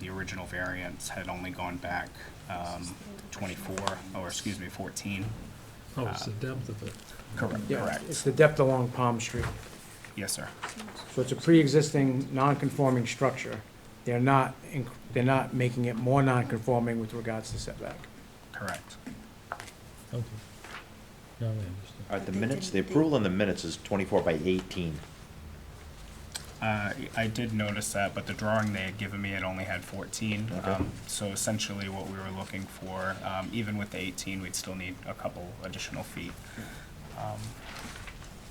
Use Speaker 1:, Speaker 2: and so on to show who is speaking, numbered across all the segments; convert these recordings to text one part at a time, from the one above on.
Speaker 1: the original variance had only gone back um, 24, or excuse me, 14.
Speaker 2: Oh,
Speaker 3: Ah.
Speaker 2: it's the depth of it.
Speaker 1: Correct,
Speaker 3: Yeah, It's
Speaker 1: correct.
Speaker 3: the depth along Palm Street.
Speaker 1: Yes, sir.
Speaker 3: So it's a pre-existing, non-conforming structure. They're not, inc- they're not making it more non-conforming with regards to setback.
Speaker 1: Correct.
Speaker 2: Okay. Now I understand.
Speaker 4: All right, the minutes, the approval on the minutes is twenty-four by eighteen.
Speaker 1: Uh, I did notice that, but the drawing they had given me, it only had 14.
Speaker 4: Okay.
Speaker 1: Um, So essentially what we were looking for, um, even with the 18, we'd still need a couple additional feet. Um,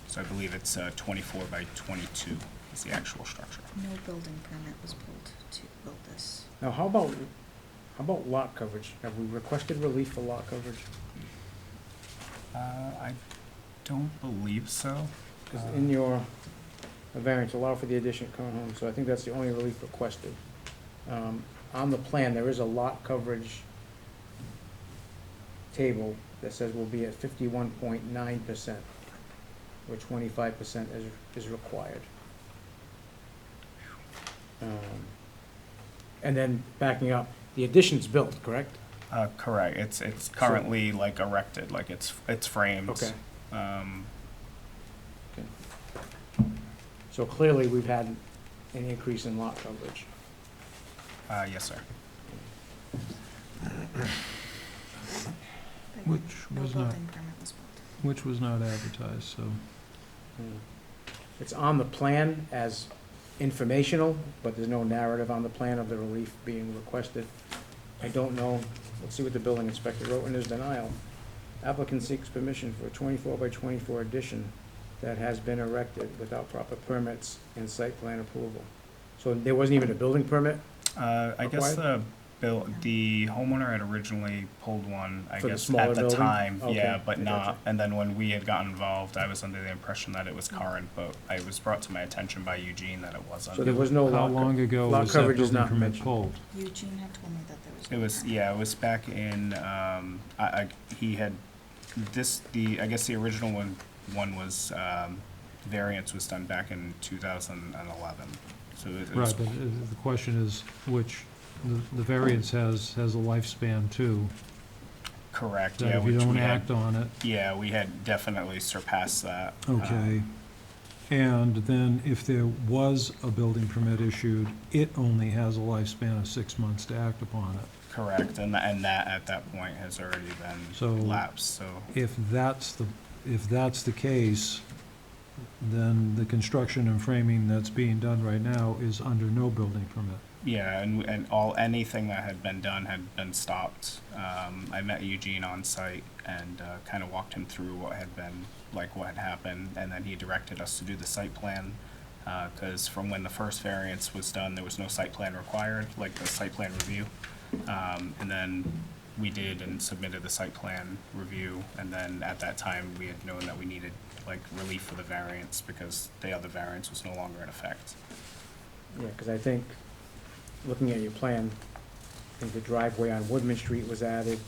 Speaker 1: So I believe it's uh, 24 by 22 is the actual structure.
Speaker 5: No building permit was pulled to build this.
Speaker 3: Now, how about, how about lot coverage? Have we requested relief for lot coverage?
Speaker 1: Uh, I don't believe so.
Speaker 3: Because in your uh, variance, allow for the addition of current home, so I think that's the only relief requested. Um, On the plan, there is a lot coverage table that says we will be at fifty-one point nine percent, where twenty-five percent is, is required. Um, And then backing up, the addition's built, correct?
Speaker 1: Uh, Correct, it's, it's currently like erected, like it's, it's framed.
Speaker 3: Okay.
Speaker 1: Um,
Speaker 3: So clearly, we've had an increase in lot coverage.
Speaker 1: uh, Yes, sir.
Speaker 2: Which
Speaker 5: No
Speaker 2: was not,
Speaker 5: building permit was pulled.
Speaker 2: which was not advertised, so,
Speaker 3: Hmm. It's on the plan as informational, but there's no narrative on the plan of the relief being requested. I don't know, let's see what the building inspector wrote in his denial. Applicant seeks permission for a twenty-four by twenty-four addition that has been erected without proper permits and site plan approval. So there wasn't even a building permit?
Speaker 1: Uh, I guess the bill, the homeowner had originally pulled one, I
Speaker 3: For the
Speaker 1: guess,
Speaker 3: smaller
Speaker 1: at the
Speaker 3: building?
Speaker 1: time, yeah,
Speaker 3: Okay,
Speaker 1: but
Speaker 3: I
Speaker 1: not,
Speaker 3: gotcha.
Speaker 1: and then when we had got involved, I was under the impression that it was current, but it was brought to my attention by Eugene that it
Speaker 3: So there
Speaker 1: wasn't.
Speaker 3: was no lot.
Speaker 2: how
Speaker 3: co-
Speaker 2: long ago
Speaker 3: lot
Speaker 2: was that
Speaker 3: coverage is
Speaker 2: building
Speaker 3: not
Speaker 2: permit
Speaker 3: mentioned.
Speaker 2: pulled?
Speaker 5: Eugene had told me that there was.
Speaker 1: It
Speaker 5: no
Speaker 1: was,
Speaker 5: permit.
Speaker 1: yeah, it was back in, um, I, I, he had, this, the, I guess the original one, one was, um, variance was done back in two thousand and eleven, so it it was
Speaker 2: Right, but uh, the question is, which, the the variance has, has a lifespan too.
Speaker 1: correct,
Speaker 2: That
Speaker 1: yeah,
Speaker 2: if you
Speaker 1: which
Speaker 2: don't
Speaker 1: we had,
Speaker 2: act on it,
Speaker 1: yeah, we had definitely surpassed that. uh,
Speaker 2: Okay. And then if there was a building permit issued, it only has a lifespan of six months to act upon it.
Speaker 1: Correct, and, tha- and that, at that point, has already
Speaker 2: So-
Speaker 1: been lapsed, so,
Speaker 2: If that's the, if that's the case, then the construction and framing that's being done right now is under no building permit.
Speaker 1: yeah, and, and all, anything that had been done had been stopped. Um, I met Eugene on site and, uh, kind of walked him through what had been, like, what had happened, and then he directed us to do the site plan. Uh 'cause cause from when the first variance was done, there was no site plan required, like the site plan review. Um, and then we did and submitted the site plan review, and then at that time, we had known that we needed, like, relief for the variance, because the other variance was no longer in effect.
Speaker 3: Yeah, because I think, looking at your plan, I think the driveway on Woodman Street was added,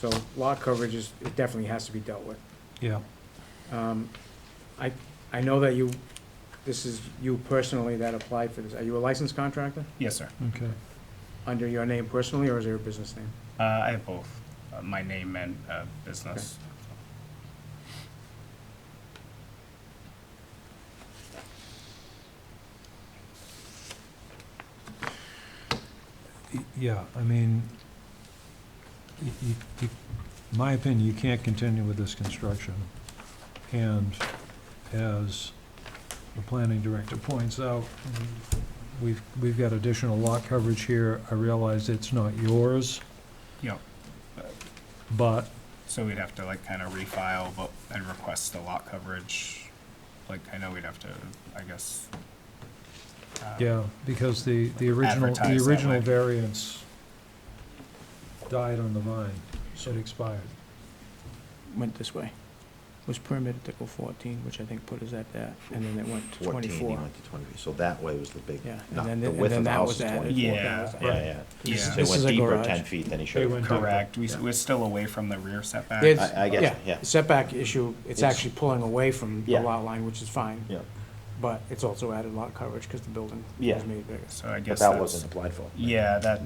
Speaker 3: so lot coverage is, it definitely has to be dealt with.
Speaker 2: Yeah.
Speaker 3: Um, I, I know that you, this is you personally that applied for this. Are you a licensed contractor?
Speaker 1: Yes, sir.
Speaker 2: Okay.
Speaker 3: Under your name personally, or is there a business name?
Speaker 1: Uh, I have both, uh, my name and, uh, business.
Speaker 2: Y- Yeah, I mean, y- y- you- in my opinion, you can't continue with this construction. And as the planning director points out, we've, we've got additional lot coverage here. I realize it's not yours,
Speaker 1: Yep.
Speaker 2: but
Speaker 1: So we'd have to like kind of refile, but, and request the lot coverage. Like, I know we'd have to, I guess. uh,
Speaker 2: Yeah, because the, the original,
Speaker 1: Advertise
Speaker 2: the
Speaker 1: that way.
Speaker 2: original variance died on the vine, so it expired.
Speaker 3: Went this way. Was permitted to go fourteen, which I think put us at that, and then it went to
Speaker 4: Fourteen, he
Speaker 3: twenty-four.
Speaker 4: went to twenty-three, so that way was the big,
Speaker 3: Yeah, and
Speaker 4: no,
Speaker 3: then
Speaker 4: the
Speaker 3: the- and
Speaker 4: width
Speaker 3: then
Speaker 4: of the
Speaker 3: that
Speaker 4: house
Speaker 3: was
Speaker 4: is
Speaker 3: added.
Speaker 4: twenty-four.
Speaker 1: Yeah.
Speaker 3: That was-
Speaker 4: Yeah, yeah.
Speaker 1: Yeah.
Speaker 4: They
Speaker 3: This is
Speaker 4: went
Speaker 3: a
Speaker 4: deeper
Speaker 3: garage.
Speaker 4: ten feet than he should
Speaker 2: went
Speaker 4: have.
Speaker 1: Correct, we,
Speaker 4: Yeah.
Speaker 1: we're still away from the rear setback.
Speaker 3: There's-
Speaker 4: I, I get you, yeah.
Speaker 3: Setback issue, it's
Speaker 4: It's-
Speaker 3: actually pulling away from the
Speaker 4: Yeah.
Speaker 3: lot line, which is fine,
Speaker 4: Yeah,
Speaker 3: but it's also added lot coverage because the building
Speaker 4: Yeah.
Speaker 3: was made bigger.
Speaker 1: So I
Speaker 4: but
Speaker 1: guess
Speaker 4: that
Speaker 1: that's,
Speaker 4: wasn't applied for.
Speaker 1: yeah, that,